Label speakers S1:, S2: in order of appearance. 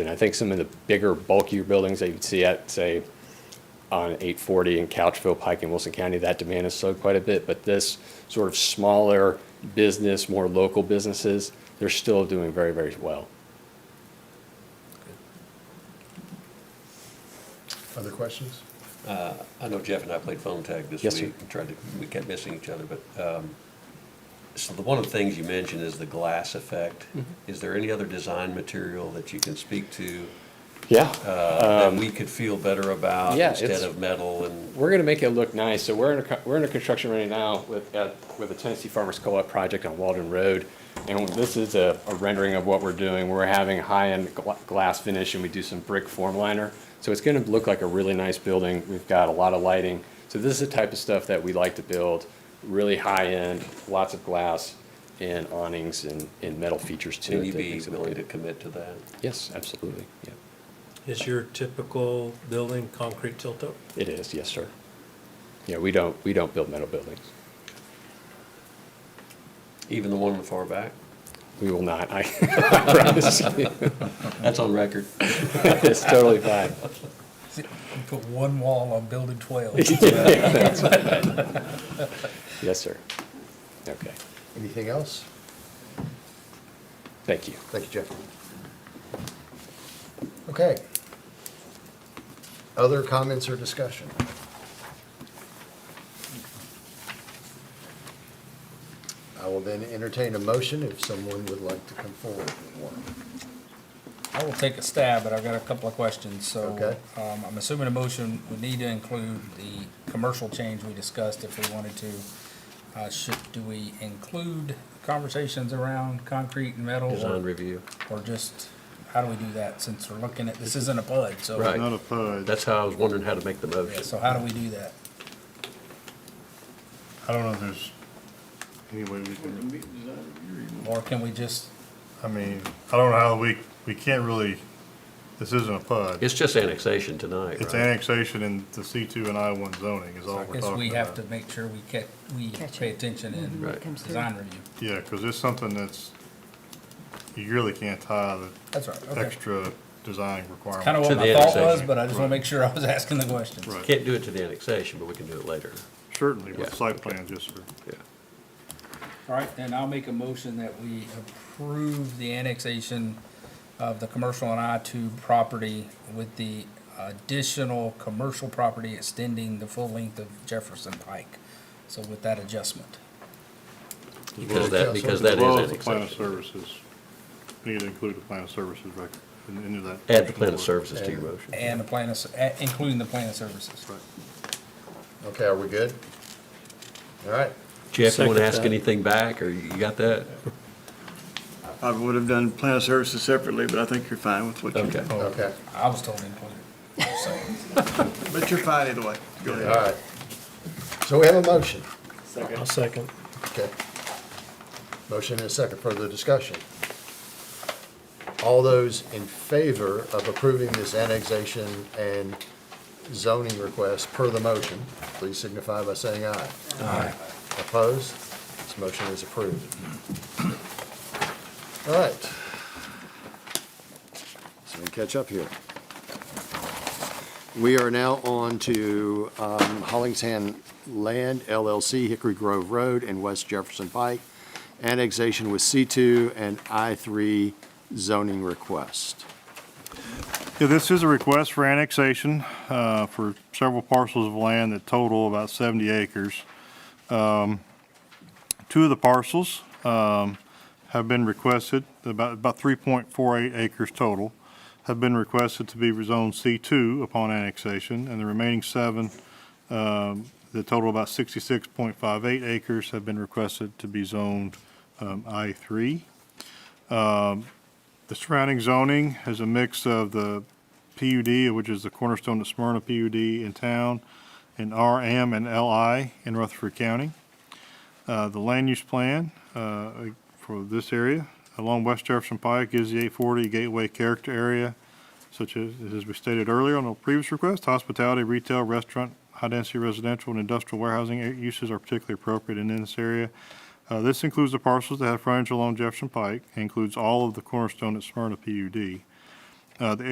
S1: And I think some of the bigger bulkier buildings that you'd see at, say, on 840 in Couchville Pike in Wilson County, that demand has slowed quite a bit. But this sort of smaller business, more local businesses, they're still doing very, very well.
S2: Other questions?
S3: I know Jeff and I played phone tag this
S1: Yes, sir.
S3: week, tried to, we kept missing each other, but, um, so the, one of the things you mentioned is the glass effect.
S1: Mm-hmm.
S3: Is there any other design material that you can speak to,
S1: Yeah.
S3: uh, that we could feel better about
S1: Um, yeah,
S3: instead
S1: it's-
S3: of metal and?
S1: we're gonna make it look nice, so we're in, a co- we're in a construction right now with, uh, with a Tennessee Farmers Co-op project on Walden Road. And this is a a rendering of what we're doing, we're having high-end gla- glass finish and we do some brick form liner. So it's gonna look like a really nice building, we've got a lot of lighting. So this is the type of stuff that we like to build, really high-end, lots of glass and awnings and, and metal features too.
S3: Would you
S1: that
S3: be
S1: makes it look
S3: willing to
S1: good.
S3: commit to that?
S1: Yes, absolutely, yeah,
S4: Is your typical building concrete tilt-up?
S1: it is, yes, sir. Yeah, we don't, we don't build metal buildings.
S3: Even the one in the far back?
S1: We will not, I I promise you.
S3: That's on record.
S1: It's totally fine.
S5: Put one wall on building twelve.
S1: Yes, sir. Okay,
S2: Anything else?
S1: thank you.
S2: Thank you, Jeff. Okay. Other comments or discussion? I will then entertain a motion if someone would like to come forward with one.
S5: I will take a stab, but I've got a couple of questions, so.
S2: Okay.
S5: Um, I'm assuming a motion would need to include the commercial change we discussed if we wanted to. Uh, should, do we include conversations around concrete and metal? or-
S3: review.
S5: Or just, how do we do that, since we're looking at, this isn't a PUD, so.
S3: Right.
S6: Not a PUD.
S3: That's how I was wondering how to make the
S5: Yeah,
S3: motion.
S5: so how do we do that?
S6: I don't know if there's any way we can,
S5: Or can we just,
S6: I mean, I don't know how we, we can't really, this isn't a PUD.
S3: It's just annexation tonight, right?
S6: It's annexation in the C2 and I1 zoning is
S5: I
S6: all we're talking
S5: guess
S6: about.
S5: we have to make sure we ca- we
S7: Catch
S5: pay
S7: Mm-hmm. it.
S5: attention in
S3: Right.
S7: comes through.
S5: design review.
S6: Yeah, because it's something that's, you really can't tie
S5: That's right,
S6: the
S5: okay.
S6: extra design requirement.
S5: Kind of
S3: To
S5: what my
S3: the
S5: thought was,
S3: intersection.
S5: but I just want
S6: Right.
S5: to make sure I was asking the questions.
S6: Right.
S3: Can't do it to the annexation, but we can do it later.
S6: Certainly, with
S3: Yeah.
S6: site plan, yes, sir.
S3: Yeah.
S5: All right, then I'll make a motion that we approve the annexation of the commercial and I two property with the additional commercial property extending the full length of Jefferson Pike. So with that adjustment.
S3: Because that, because that
S6: As
S3: is
S6: well as the plan of
S3: annexation.
S6: services. We need to include the plan of services rec- in- into that.
S3: Add the plan of services to your motion.
S5: And the plan of, s- a- including the plan of services.
S2: Okay, are we good? All right.
S3: Jeff, you want to ask
S6: Second.
S3: anything back, or you got that?
S8: I would have done plan of services separately, but I think you're fine with what you
S3: Okay.
S8: did.
S2: Okay,
S5: I was told included, so.
S8: But you're fine either way. Go
S2: all
S8: ahead.
S2: right. So we have a motion.
S4: I'll second.
S2: Okay. Motion and a second, further discussion. All those in favor of approving this annexation and zoning request per the motion, please signify by saying aye. Aye. Opposed? This motion is approved. All right. So we catch up here. We are now on to um, Hollingshead Land LLC, Hickory Grove Road and West Jefferson Pike, annexation with C2 and I3 zoning request.
S6: Yeah, this is a request for annexation uh, for several parcels of land that total about 70 acres. Um, Two of the parcels um, have been requested, about about 3.48 acres total, have been requested to be rezoned C2 upon annexation, and the remaining seven, um, that total about 66.58 acres, have been requested to be zoned um, I3. The surrounding zoning has a mix of the PUD, which is the cornerstone of Smyrna PUD in town, and RM and LI in Rutherford County. Uh, The land use plan uh, for this area along West Jefferson Pike is the 840 Gateway Character Area, such as, as we stated earlier on a previous request, hospitality, retail, restaurant, high-density residential, and industrial warehousing a- uses are particularly appropriate in this area. Uh, This includes the parcels that have frontage along Jefferson Pike, and includes all of the cornerstone at Smyrna PUD. Uh, The